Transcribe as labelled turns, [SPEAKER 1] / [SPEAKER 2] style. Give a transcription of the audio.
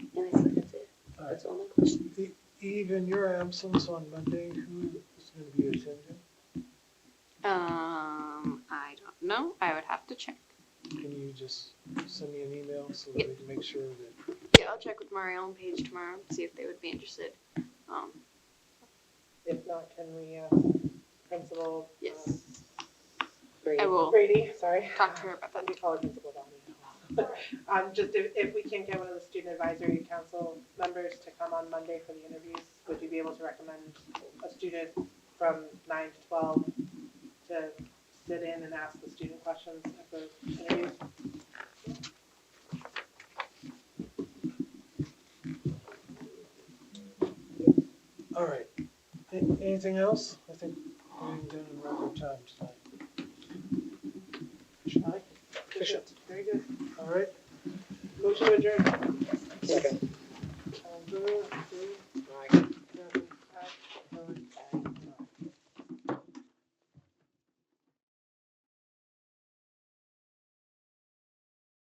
[SPEAKER 1] That's all my question.
[SPEAKER 2] E- Eve, in your absence on Monday, who is going to be attending?
[SPEAKER 1] Um, I don't know. I would have to check.
[SPEAKER 2] Can you just send me an email so that we can make sure that,
[SPEAKER 1] Yeah, I'll check with Marielle and Paige tomorrow, see if they would be interested. Um,
[SPEAKER 3] If not, can we ask Principal? uh,
[SPEAKER 1] yes,
[SPEAKER 4] Brady.
[SPEAKER 1] I will
[SPEAKER 3] Brady, sorry.
[SPEAKER 1] talk to her about
[SPEAKER 3] Let
[SPEAKER 1] that.
[SPEAKER 3] me call her Principal Downey. Um, just if, if we can get one of the student advisory council members to come on Monday for the interviews, would you be able to recommend a student from nine to twelve to sit in and ask the student questions at the interviews?
[SPEAKER 2] all right. A- Anything else? I think we're done in record time tonight.
[SPEAKER 3] I like it.
[SPEAKER 2] Efficient.
[SPEAKER 3] Very good.
[SPEAKER 2] All right,
[SPEAKER 3] Motion adjourned.
[SPEAKER 4] Second.